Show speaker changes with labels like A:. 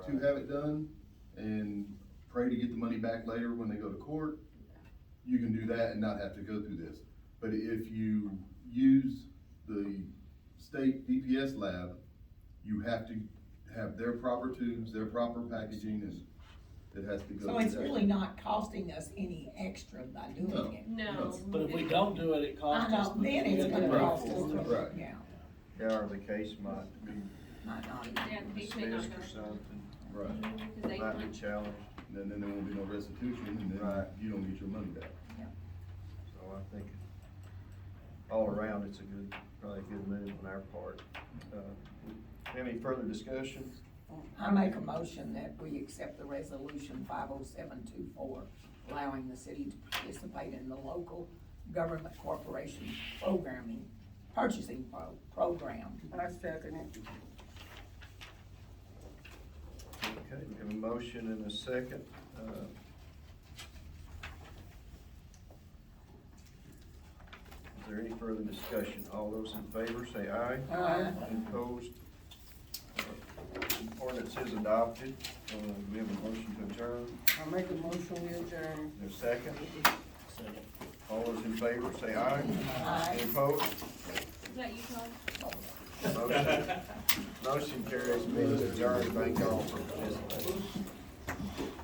A: to have it done and pray to get the money back later when they go to court, you can do that and not have to go through this. But if you use the state DPS lab, you have to have their proper tubes, their proper packaging, and it has to go.
B: So
A: through
B: it's
A: that.
B: really not costing us any extra by
A: No.
B: doing it.
C: No.
D: But if we don't do it, it
B: I
D: costs us.
B: know, then it's gonna
A: Right.
B: cost
A: Right.
B: us, yeah,
E: Yeah, or the case might be
B: might not even.
C: Yeah, we could not
E: dismissed
C: go.
E: or something,
A: Right,
C: Cause they
E: might
C: want,
E: be challenged,
A: and then- then there won't be no restitution, and then
E: Right.
A: you don't get your money back.
E: so I think all around, it's a good, probably a good move on our part. Uh, Any further discussion?
B: I make a motion that we accept the resolution five oh seven two four, allowing the city to participate in the local government corporation programming, purchasing pro- program.
F: I second it.
E: Okay, we have a motion and a second. Uh, Is there any further discussion? All those in favor, say aye.
B: Aye.
E: Any Opposed? Uh, Ordinance is adopted. Uh, We have a motion to adjourn.
F: I make a motion, we adjourn.
E: Is there a second? All those in favor, say aye.
B: Aye.
E: Any opposed?
C: is that you, Todd?
E: Motion- Motion carries. Meeting adjourned. Thank y'all for participating.